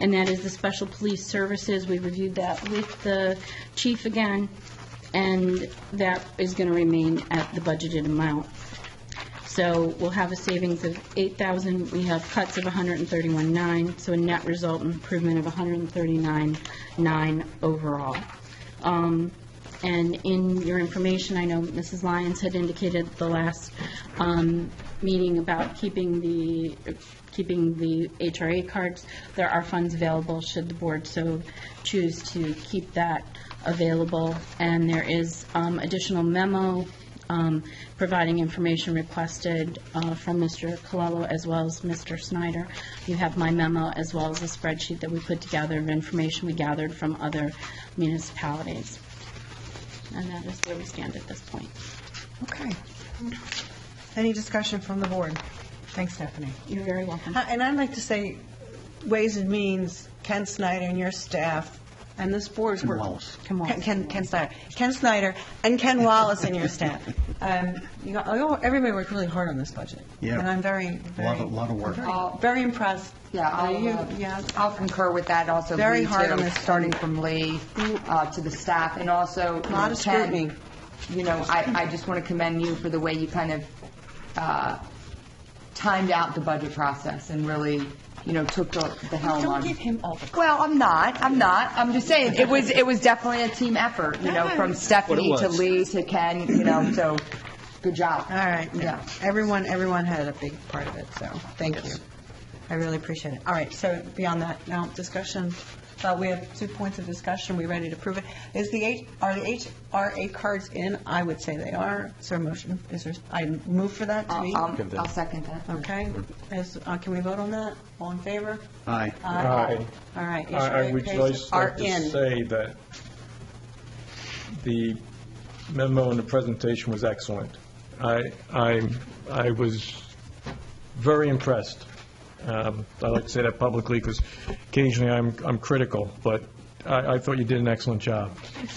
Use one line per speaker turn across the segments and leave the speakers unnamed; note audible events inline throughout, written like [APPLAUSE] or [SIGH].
and that is the special police services. We reviewed that with the chief again, and that is going to remain at the budgeted amount. So we'll have a savings of 8,000, we have cuts of 131.9, so a net result improvement of 139.9 overall. Um, And in your information, I know Mrs. Lyons had indicated at the last um, meeting about keeping the, keeping the HRA cards. There are funds available should the board so choose to keep that available. And there is um, additional memo um, providing information requested uh, from Mr. Colello as well as Mr. Snyder. You have my memo as well as a spreadsheet that we put together of information we gathered from other municipalities. And that is where we stand at this point.
Okay. Any discussion from the board? Thanks, Stephanie.
You're very welcome.
Uh, And I'd like to say, Ways and Means, Ken Snyder and your staff, and this board's work.
Wallace.
Ken Wallace.
Ken, Ken Snyder. Ken Snyder and Ken Wallace and your staff. Um, you know, I know Everybody worked really hard on this budget.
Yeah.
And I'm very,
A
very.
lot of, lot of work.
very- Very impressed.
Yeah,
Uh, you-
I'll, uh,
Yeah.
I'll concur with that, also
Very
Lee,
hard on
too,
this.
starting from Lee uh, to the staff, and also, you
Lot
know,
of scrutiny.
Ken, you know, I, I just want to commend you for the way you kind of uh, timed out the budget process and really, you know, took the the helm on.
Don't give him all the.
[LAUGHS] Well, I'm not, I'm not, I'm just saying, it was, it was definitely a team effort, you know, from Stephanie to Lee to Ken, you know, so, good job.
All right, yeah.
Yeah.
Everyone, everyone had a big part of it, so, thank you. I really appreciate it. All right, so beyond that, now discussion, uh, we have two points of discussion, we ready to approve it? Is the, H- are the HRA cards in? I would say they are. Is there a motion? Is there, I move for that to be?
I'll I'll- I'll second that.
Okay, is, uh, can we vote on that? All in favor?
Aye.
Aye.
All right.
I I
HRA
would
cases
just
are
like to
in.
say that the memo and the presentation was excellent. I, I, I was very impressed. Um, I like to say that publicly because occasionally I'm, I'm critical, but I, I thought you did an excellent job.
Thank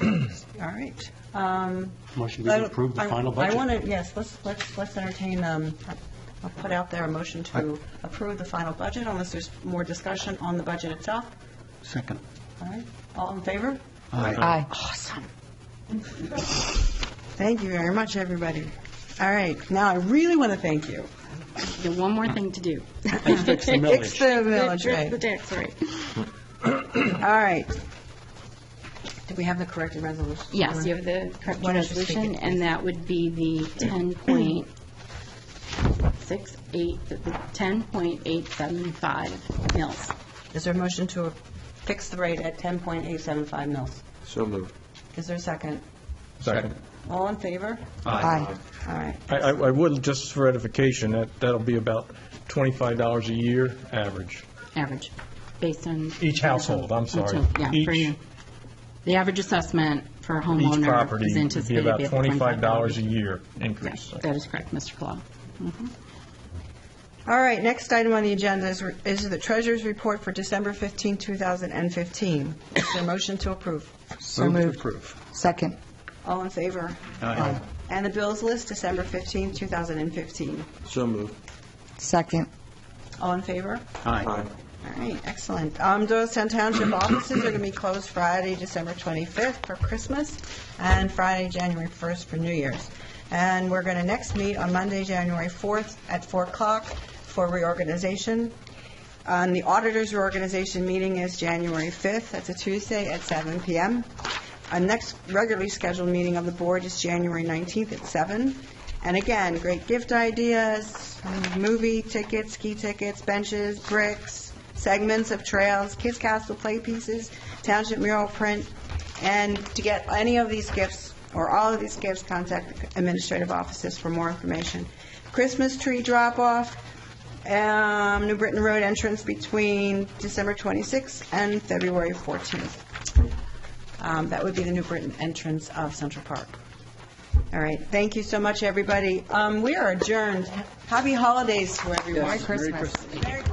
you.
All right. Um,
Motion to approve the
I-
final
I
budget.
want to, yes, let's, let's, let's entertain, um, I'll put out there a motion to approve the final budget unless there's more discussion on the budget itself.
Second.
All right, all in favor?
Aye.
Aye.
Awesome. Thank you very much, everybody. All right, now I really want to thank you.
You have one more thing to do.
Fix the millage.
[LAUGHS]
Fix the millage rate.
The tax rate.
All right. Do we have the corrected resolution?
Yes, you have the correct
Why don't you speak
resolution,
it,
and that would be the 10.68, the 10.875 mils.
Is there a motion to fix the rate at 10.875 mils?
So moved.
Is there a second?
Second.
All in favor?
Aye.
All right.
I, I I would, just for edification, that, that'll be about $25 a year average.
average, based on...
Each household, I'm sorry.
Each- Yeah, per
Each-
year. The average assessment for a
Each
homeowner
property
is
would be
anticipated to
about
be at
$25 a
$25.
year increase.
Yes, That is correct, Mr. Colon.
All right, next item on the agenda is, is the treasurer's report for December 15, 2015. Is there a motion to approve?
So
Move to
moved.
approve.
Second.
All in favor?
Aye.
And the bills list, December 15, 2015.
So moved.
Second.
All in favor?
Aye.
All right, excellent. Um, Doylestown Township offices are going to be closed Friday, December 25th for Christmas, and Friday, January 1st for New Year's. And we're going to next meet on Monday, January 4th at 4 o'clock for reorganization. And the auditors' reorganization meeting is January 5th, that's a Tuesday, at 7 PM. Our next regularly scheduled meeting of the board is January 19th at 7. And again, great gift ideas, movie tickets, ski tickets, benches, bricks, segments of trails, Kids Castle play pieces, township mural print. And to get any of these gifts, or all of these gifts, contact administrative offices for more information. Christmas tree drop-off, um, New Britain Road entrance between December 26th and February 14th. Um, That would be the New Britain entrance of Central Park. All right, thank you so much, everybody. Um, We are adjourned. Happy holidays to everyone.
Merry Christmas.
Merry